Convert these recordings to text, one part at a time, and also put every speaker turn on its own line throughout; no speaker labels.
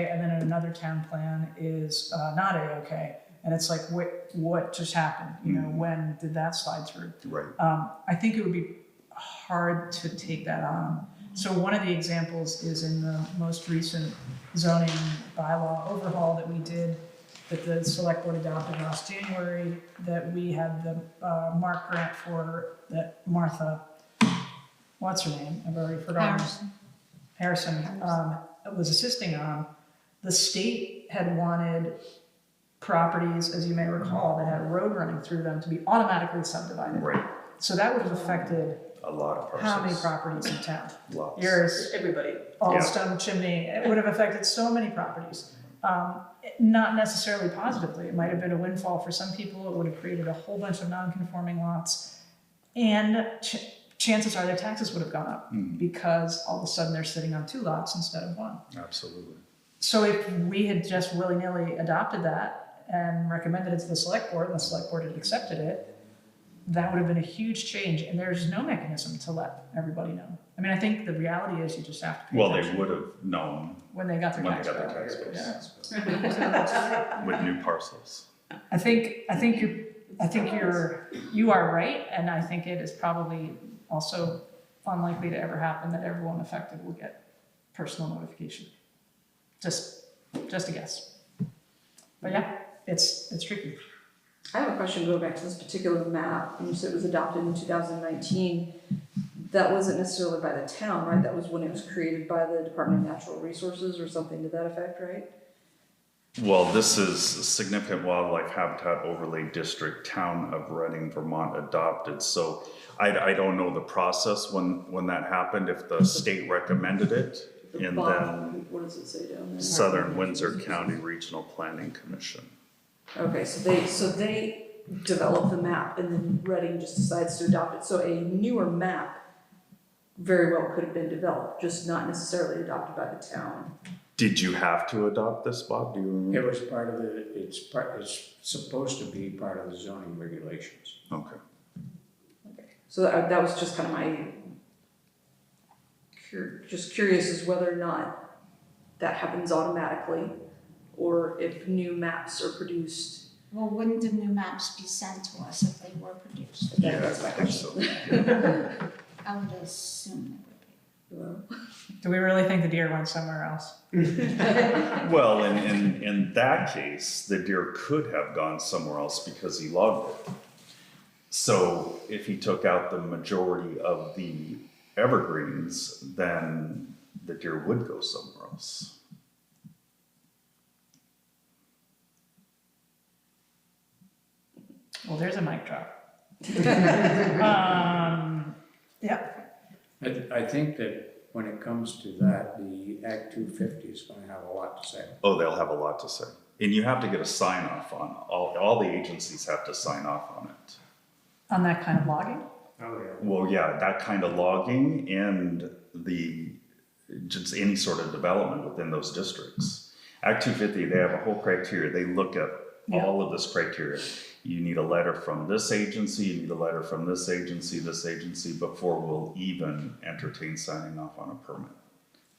another town plan is uh, not A-OK. And it's like, what, what just happened? You know, when did that slide through?
Right.
Um, I think it would be hard to take that on. So one of the examples is in the most recent zoning bylaw overhaul that we did, that the select board adopted last January, that we had the, uh, Mark grant for, that Martha, what's her name? I've already forgotten. Harrison um, was assisting on, the state had wanted properties, as you may recall, that had a road running through them to be automatically subdivided.
Right,
So that would have affected
a lot of parcels.
how many properties in town?
Lots.
Yours,
Everybody.
all
Yeah.
stone chimney, it would have affected so many properties. Um, it- Not necessarily positively, it might have been a windfall for some people, it would have created a whole bunch of non-conforming lots. And ch- chances are their taxes would have gone up
Mm.
because all of a sudden they're sitting on two lots instead of one.
Absolutely.
So if we had just willy-nilly adopted that and recommended it to the select board, and the select board had accepted it, that would have been a huge change, and there's no mechanism to let everybody know. I mean, I think the reality is you just have to pay
Well, they
attention
would have known
when they got their
when they
tax
got their
bill.
tax
Yeah.
bills with new parcels.
I think, I think you're, I think you're, you are right, and I think it is probably also unlikely to ever happen that everyone affected will get personal notification. Just, just a guess. But yeah, it's, it's tricky.
I have a question going back to this particular map, and so it was adopted in two thousand nineteen. That wasn't necessarily by the town, right? That was when it was created by the Department of Natural Resources or something to that effect, right?
Well, this is significant wildlife habitat overlay district, town of Reading, Vermont adopted, so I, I don't know the process when, when that happened, if the state recommended it.
The
And then
bottom, what does it say down there?
Southern Windsor County Regional Planning Commission.
Okay, so they, so they develop the map and then Reading just decides to adopt it, so a newer map very well could have been developed, just not necessarily adopted by the town.
Did you have to adopt this, Bob? Do you remember?
It was part of the, it's part, it's supposed to be part of the zoning regulations.
Okay.
So that, that was just kind of my cur- just curious as whether or not that happens automatically or if new maps are produced.
Well, wouldn't the new maps be sent to us if they were produced?
Yeah, I think so.
I would assume it would be.
Well,
Do we really think the deer went somewhere else?
Well, in, in, in that case, the deer could have gone somewhere else because he logged it. So if he took out the majority of the evergreens, then the deer would go somewhere else.
Well, there's a mic drop. Um, yeah,
I, I think that when it comes to that, the Act two fifty is gonna have a lot to say.
Oh, they'll have a lot to say. And you have to get a sign off on, all, all the agencies have to sign off on it.
on that kind of logging?
Oh, yeah.
Well, yeah, that kind of logging and the, just any sort of development within those districts. Act two fifty, they have a whole criteria, they look at
Yeah.
all of this criteria. You need a letter from this agency, you need a letter from this agency, this agency, before we'll even entertain signing off on a permit.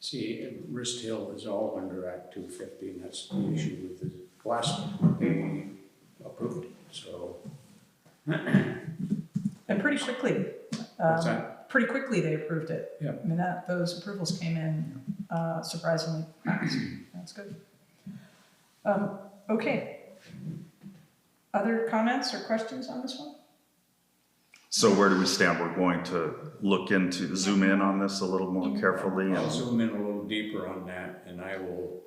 See, Wrist Hill is all under Act two fifty, and that's the issue with the last one, they approved, it, so.
And pretty quickly,
What's
um,
that?
pretty quickly they approved it.
Yeah.
I mean, that, those approvals came in uh, surprisingly fast. That's good. Um, okay. Other comments or questions on this one?
So where do we stand? We're going to look into, zoom in on this a little more carefully
I'll
and,
zoom in a little deeper on that, and I will,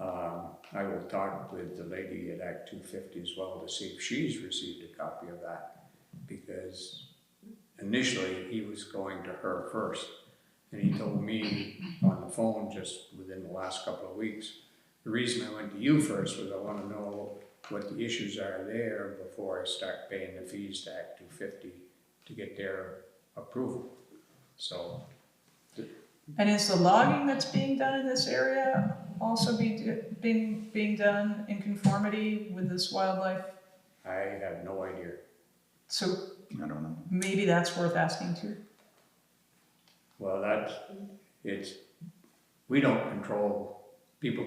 um, I will talk with the lady at Act two fifty as well to see if she's received a copy of that. Because initially, he was going to her first, and he told me on the phone just within the last couple of weeks, the reason I went to you first was I wanna know what the issues are there before I start paying the fees to Act two fifty to get their approval. So,
And is the logging that's being done in this area also be, being, being done in conformity with this wildlife?
I have no idea.
So
I don't know.
maybe that's worth asking too.
Well, that's, it's, we don't control, people